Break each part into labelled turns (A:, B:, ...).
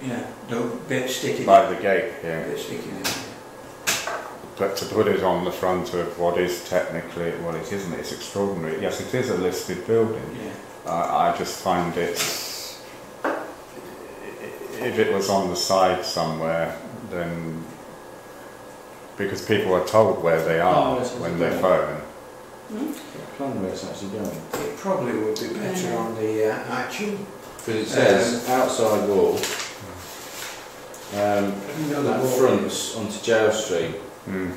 A: yeah, the bit sticking.
B: by the gate here.
A: Bit sticking in.
B: But to put it on the front of what is technically, well, it isn't, it's extraordinary. Yes, it is a listed building.
A: Yeah.
B: I, I just find it, if it was on the side somewhere, then, because people are told where they
C: Oh,
B: are
C: yes, yes,
B: when they
C: yeah.
B: phone.
C: Plan where it's actually going.
A: It probably would be better on the uh, actual.
C: Because it says outside wall, um, that fronts onto Jail Street,
B: Mm.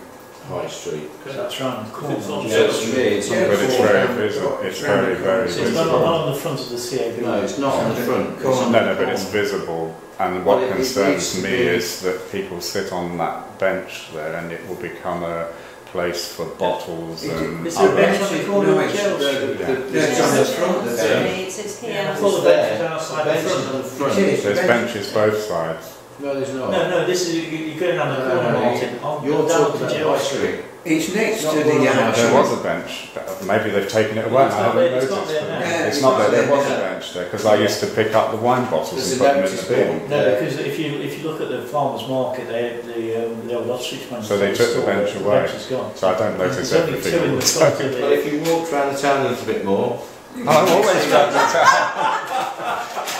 C: High Street.
D: Because that's round the corner.
E: It's on
C: Yeah,
D: Yeah.
E: Jail
C: it's
E: Street.
C: me, it's on
A: Yeah.
B: But
C: the
B: it's
C: corner.
B: very visible, it's very, very
D: So it's not not
B: visible.
D: on the front of the CAB.
C: No, it's not on the front. it's
B: No,
C: on the
B: no, but it's
C: corner.
B: visible, and
C: Well, it-
B: what
C: it needs
B: concerns
C: to
B: me
C: be-
B: is that people sit on that bench there and it will become a place for bottles
A: It-
B: and
A: it's
E: a
B: other...
E: bench. on the
A: Oh, No,
E: corner of
A: it's-
C: No,
E: Jail
C: the- the-
B: Yeah.
C: the-
A: Yeah, it's on the front,
E: It's
C: isn't it?
E: here, It's, it's here.
D: Yeah.
E: I
D: Full
E: thought
D: of
C: It's there.
D: benches outside the
C: bench
D: front.
C: is on the
A: It
C: front.
A: is.
B: There's
A: bench.
B: benches both sides.
C: No, there's
D: No,
C: not.
D: no, this is, you- you're going down the
C: No,
D: corner,
C: no,
D: Martin. On-
C: You're
D: down
C: talking
D: to
C: about
D: Jail
C: High
D: Street.
C: Street.
A: It's next
C: It's not
A: to
C: one
A: the
C: of
B: Now,
C: those.
A: actual.
B: There was a bench, but maybe they've taken it away, I
D: It's not
B: haven't
D: there- it's
B: noticed.
D: not there
A: now.
B: but-
A: Yeah,
B: It's
A: it's
B: not
A: not
B: there, there
A: there
B: was a
C: now.
B: bench there, because I used to pick up the wine bottles
C: There's
B: and put
C: an
B: them in
C: empty
B: the
C: bin.
B: bin.
D: No,
C: Yeah.
D: because if you, if you look at the farmer's market, they, the, um, the old ostrich man.
B: So they took the bench away.
D: The bench is gone.
B: So I don't notice
D: There's only two
B: everything
D: in
B: all the
D: the front
B: time.
D: of
C: But
D: it.
C: if you walked around the town a little bit more,
B: I'm always round the town.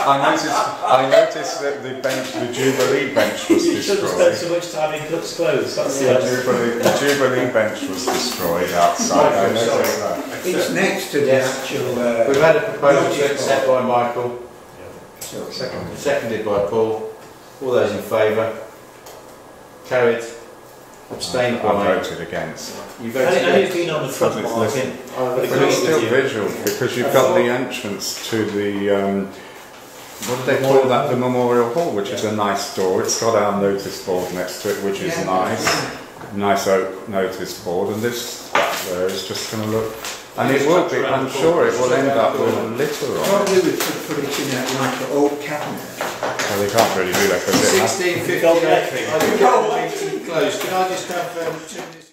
B: I noticed, I noticed that the bench, the Jubilee bench was
D: You shouldn't spend
B: destroyed.
D: so much time in Cook's Close, that's the
B: The
D: answer.
B: Jubilee, the Jubilee bench was destroyed outside, I noticed that.
A: It's next to the
C: Yes.
A: actual.
C: we've
A: Uh,
C: had a proposal to accept by Michael,
A: so,
C: seconded by Paul. All those in favour? Carried. Abstained
B: I
C: by.
B: voted against.
C: You
D: And
C: voted
D: it- and it's
C: against.
D: been on the front
B: But it's
D: market.
C: I
D: But
B: But it's
C: agree
B: still
C: with you.
B: visual, because you've got the entrance to the, um, what do they call that, the Memorial Hall, which is a nice door. It's got our notice board next to it, which is nice. nice oak notice board, and this back there is just going to look. And it will be, I'm sure it will end up with litter on it.
A: Probably we could put it in that like an old cabinet.
B: Well, they can't really do that because it has
C: Sixteen fifty.
D: Gold battery.
C: I've got the meeting closed. Can I just have um, two minutes?